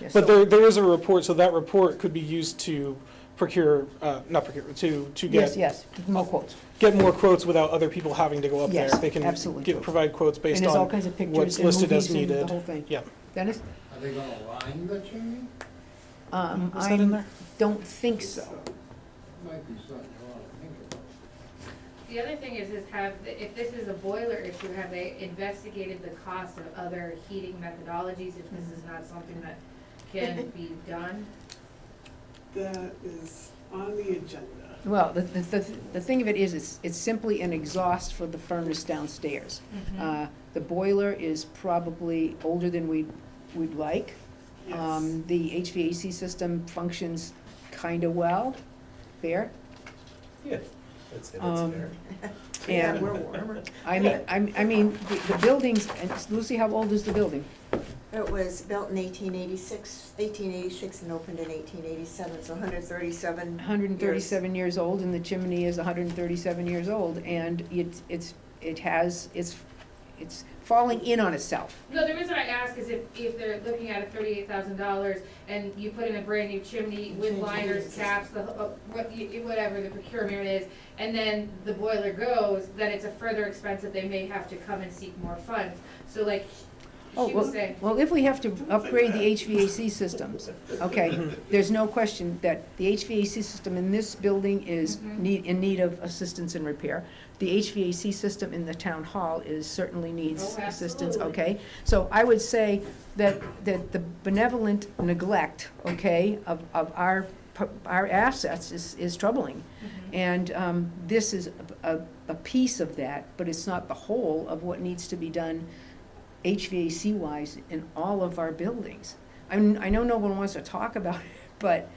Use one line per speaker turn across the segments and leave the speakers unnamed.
Yeah,
But
so-
there, there is a report, so that report could be used to procure, uh, not procure, to, to
Yes,
get,
yes, more quotes.
get more quotes without other people having to go up there.
Yes,
They can
absolutely.
get- Provide quotes
And
based
there's all
on,
kinds of
what's
pictures and
listed
movies
as
and the
needed.
whole thing.
yeah.
Dennis?
Are they gonna line the chimney?
Um,
Is that in
I
there?
don't think so.
Might be something you ought to think about.
The other thing is, is have, if this is a boiler issue, have they investigated the cost of other heating methodologies? If this is not something that can be done?
That is on the agenda.
Well, the, the, the the thing of it is, it's, it's simply an exhaust for the furnace downstairs. Uh, The boiler is probably older than we, we'd like.
Yes.
Um, The HVAC system functions kind of well, fair.
Yeah, that's it,
Um,
that's fair.
Yeah,
And
we're warmer.
I mean, I'm- I mean, the the buildings, and Lucy, how old is the building?
It was built in 1886, 1886 and opened in 1887, so 137.
137 years old, and the chimney is 137 years old, and it's, it's, it has, it's, it's falling in on itself.
No, the reason I ask is if, if they're looking at a thirty-eight thousand dollars and you put in a brand-new chimney with
Change the
liners,
heating
caps, the, uh, what, you- whatever the procurement is, and then the boiler goes, then it's a further expense that they may have to come and seek more funds. So like,
Oh
she was
well.
saying,
Well, if we have to upgrade the HVAC systems, okay, there's no question that the HVAC system in this building is
Mhm.
need, in need of assistance and repair. The HVAC system in the town hall is, certainly needs
Oh,
assistance,
absolutely.
okay? So I would say that, that the benevolent neglect, okay, of, of our, pu- our assets is, is troubling.
Mm-hmm.
And um, this is a, a- a piece of that, but it's not the whole of what needs to be done HVAC-wise in all of our buildings. I mean, I know no one wants to talk about it, but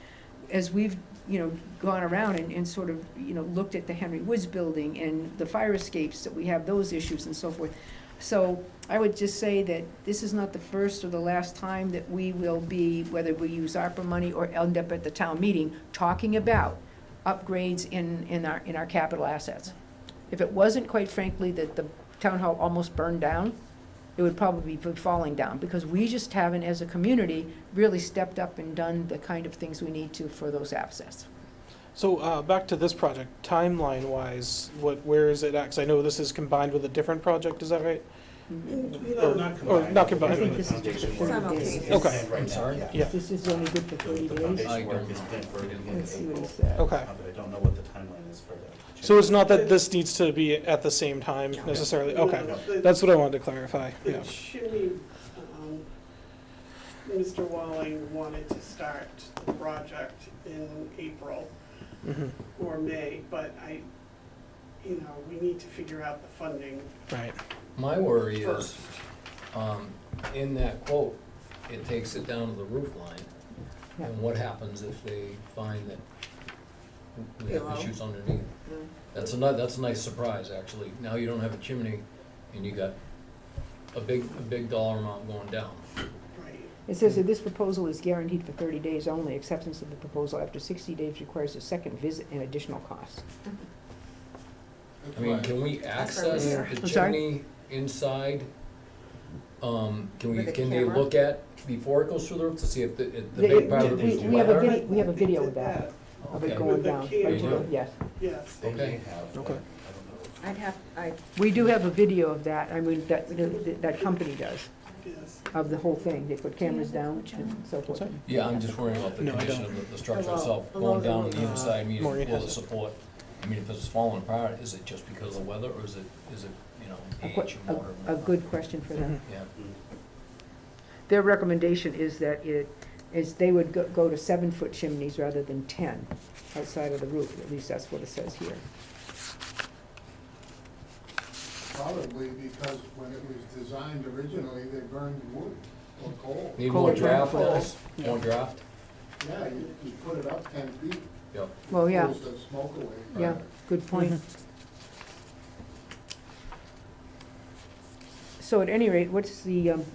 as we've, you know, gone around and, and sort of, you know, looked at the Henry Woods building and the fire escapes, that we have those issues and so forth. So I would just say that this is not the first or the last time that we will be, whether we use ARPA money or end up at the town meeting, talking about upgrades in, in our, in our capital assets. If it wasn't, quite frankly, that the town hall almost burned down, it would probably be falling down, because we just haven't, as a community, really stepped up and done the kind of things we need to for those assets.
So, uh, back to this project, timeline-wise, what, where is it at? 'Cause I know this is combined with a different project, is that right?
You
Or-
know,
Or not combined,
think this is just for
Some okay.
It's
Okay.
planned right
I'm
now,
sorry?
yeah.
Yeah.
This is only good for
The- The foundation work is planned for beginning
Let's see
of
what he
April,
said.
okay.
Uh, but I don't know what the timeline is for that.
So it's not that this needs to be at the same time necessarily, okay.
the-
That's what I wanted to clarify,
The
yeah.
chimney, um, Mr. Walling wanted to start the project in April
Mhm.
or May, but I, you know, we need to figure out the funding
Right,
My worry is,
first.
um, in that quote, it takes it down to the roof line. And what happens if they find that we have
Below.
issues underneath? That's a ni- that's a nice surprise, actually. Now you don't have a chimney and you got a big, a big dollar amount going down.
Right.
It says that this proposal is guaranteed for thirty days only. Acceptance of the proposal after sixty days requires a second visit and additional cost.
That's
I mean,
why-
can we
That's our
access
research.
the
I'm sorry?
chimney inside? Um, can we,
With a
can they
camera?
look at, before it goes through the roof, to see if the, if the
They-
big part of the
we-
roof is
we have a
weathered?
vid- we have a
They did
video of that. Of it
Okay.
going
With the
down.
camera.
right to the- Yes.
Yes.
They may
Okay.
have, but I
Okay.
don't know.
I'd have, I,
We do have a video of that, I mean, that, that- that company does,
yes.
of the whole thing. They put cameras down and so
What's
forth.
that?
Yeah, I'm just worrying about the
No, I
condition
don't.
of the, the structure
Below-
itself,
below
going
the
down
roof.
on the inside, I mean,
Maureen
will
has
the
it.
support? I mean, if it's falling apart, is it just because of the weather, or is it, is it, you know,
A que-
age and water?
A good question for them.
Yeah,
Their recommendation is that it, is they would go, go to seven-foot chimneys rather than ten outside of the roof, at least that's what it says here.
Probably because when it was designed originally, they burned wood or coal.
need more
Cold
draft,
draft.
Dennis, more draft,
Yeah, you, you put it up ten feet.
yep.
Well, yeah,
Pulls the smoke away.
yeah, good point. So at any rate, what's the um,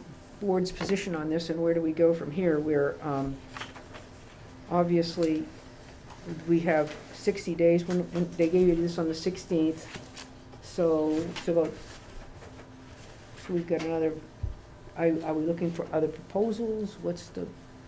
board's position on this, and where do we go from here? We're, um, obviously, we have sixty days, when, when they gave you this on the sixteenth, so it's about, so we've got another, are, are we looking for other proposals? What's the,